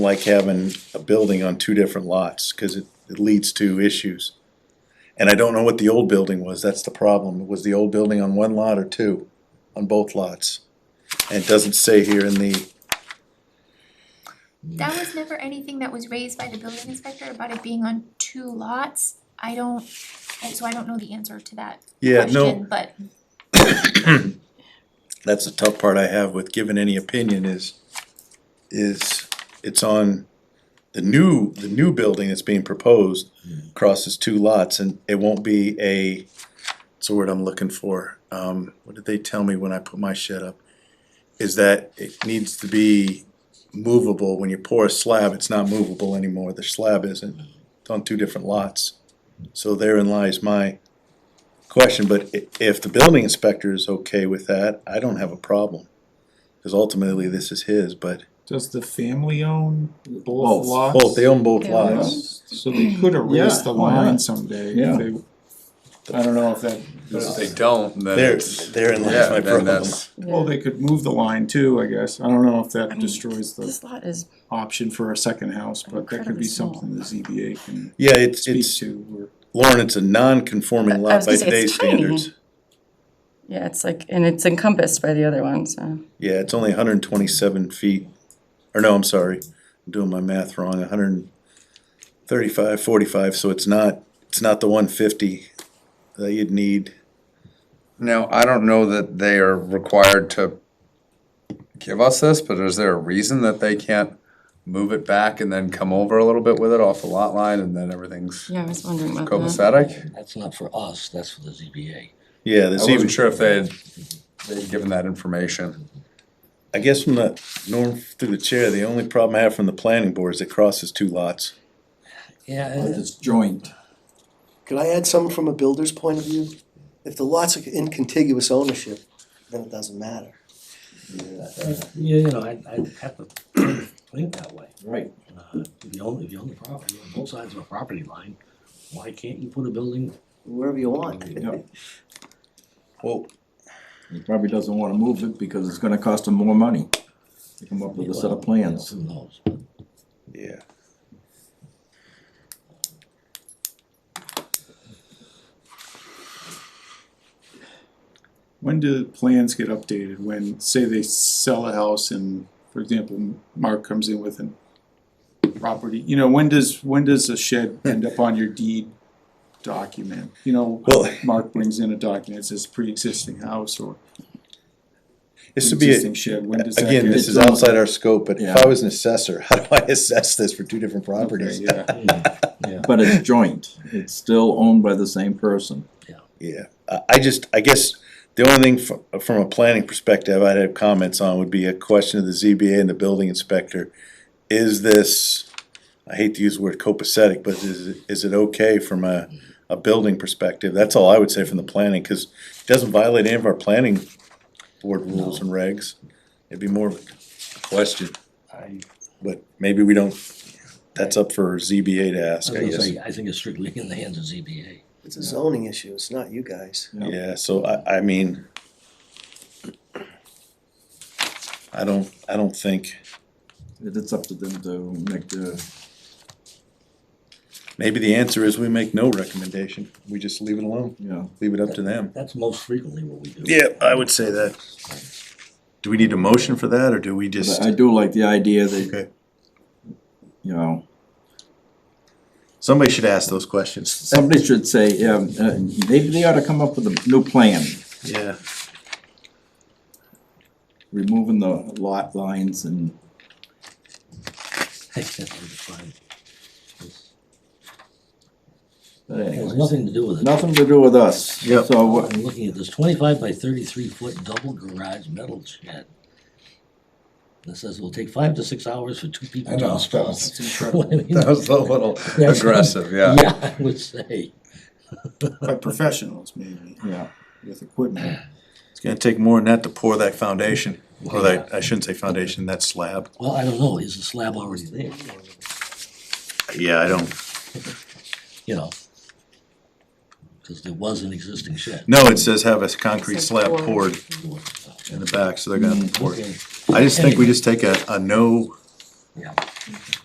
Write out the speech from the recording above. like having a building on two different lots, cause it, it leads to issues. And I don't know what the old building was, that's the problem, was the old building on one lot or two, on both lots? And it doesn't say here in the, That was never anything that was raised by the building inspector about it being on two lots. I don't, and so I don't know the answer to that yeah, no, question, but that's the tough part I have with giving any opinion is, is it's on the new, the new building that's being proposed crosses two lots and it won't be a, it's the word I'm looking for. Um, what did they tell me when I put my shed up? Is that it needs to be movable. When you pour a slab, it's not movable anymore. The slab isn't. It's on two different lots. So therein lies my question, but i- if the building inspector is okay with that, I don't have a problem. Cause ultimately this is his, but Does the family own both Both. lots? both, they own both They own lots. So they could erase Yeah, the why not? line someday if Yeah. they, I don't know if that, But if is- they don't, then There, it's, therein yeah, lies my then problem. that's, well, they could move the line too, I guess. I don't know if I that mean, destroys the This lot is, option for a second house, but that could Incredibly be small. something the ZBA can Yeah, it's, speak it's, to Lauren, it's a non-conforming I- I lot was by gonna say, it's today's standards. yeah, it's like, and it's encompassed by the other one, so. Yeah, it's only hundred and twenty-seven feet, or no, I'm sorry, I'm doing my math wrong, hundred and thirty-five, forty-five, so it's not, it's not the one fifty that you'd need. now, I don't know that they are required to give us this, but is there a reason that they can't move it back and then come over a little bit with it off the lot line and then everything's Yeah, I was wondering Mm-hmm. about that. copacetic? That's not for us, that's for the ZBA. Yeah, the I wasn't ZBA, sure if they had, they'd given that information. I guess from the, Norm, through the chair, the only problem I have from the planning board is it crosses two lots. Yeah, and- it's joint. Could I add something from a builder's point of view? If the lots are in contiguous ownership, then it doesn't matter. yeah, you know, I, I have to think that way. Right. Uh, If you own, if you own the property, on both sides of a property line, why can't you put a building? Wherever you want. Yep. Well, He probably doesn't wanna move it because it's gonna cost him more money to come up with a set of plans. Who knows? yeah. When do plans get updated? When, say they sell a house and, for example, Mark comes in with an property, you know, when does, when does a shed Hmm. end up on your deed document? You know, Well- Mark brings in a document, that says pre-existing house or This would be, pre-existing a- shed, when does that get? again, this is It's almost- outside our scope, but if Yeah. I was an assessor, how do I assess this for two different Okay, properties? yeah. But it's joint, it's still owned by the same person. Yeah, I, I just, I guess, the only thing from, from a planning perspective I'd have comments on would be a question of the ZBA and the building inspector. Is this, I hate to use the word copacetic, but is, it- is it okay from a, a building perspective? That's all I would say from the planning, cause it doesn't violate any of our planning board rules and regs. It'd be more of a question, I, but maybe we don't, that's up for ZBA to I was ask, I gonna guess. say, I think it's strictly in the hands of ZBA. It's a zoning issue, it's not you guys. Yeah, so I, I mean. I don't, I don't think, It- It's up to them to make the, maybe the answer is we make no recommendation, we just leave it alone, you know, leave it up to them. That's most frequently what we do. say that. Do we need a motion for that, or do we but just, I do like the idea that, Okay. you know, somebody should ask those questions. somebody should say, um, uh, they, they ought to come up with a new plan, Yeah. removing the lot lines and But It has anyways, nothing to do with it. nothing to do with us. Yep. So uh, I'm looking at this twenty-five by thirty-three foot double garage metal shed. That says it'll take five to six hours for two people to install. That's incredible. What I mean- That was a little Yes. aggressive, yeah. Yeah, I would say. By professionals maybe, yeah, with equipment. It's gonna take more than that to pour that foundation, or Yeah. that, I shouldn't say foundation, that slab. Well, I don't know, is the slab already there, Yeah, I don't, you know? Because there was an existing shed. no, it says have a concrete slab Except for- poured Mm. in the back, so they're gonna pour it. Okay, I just think we just take a, a no Yeah.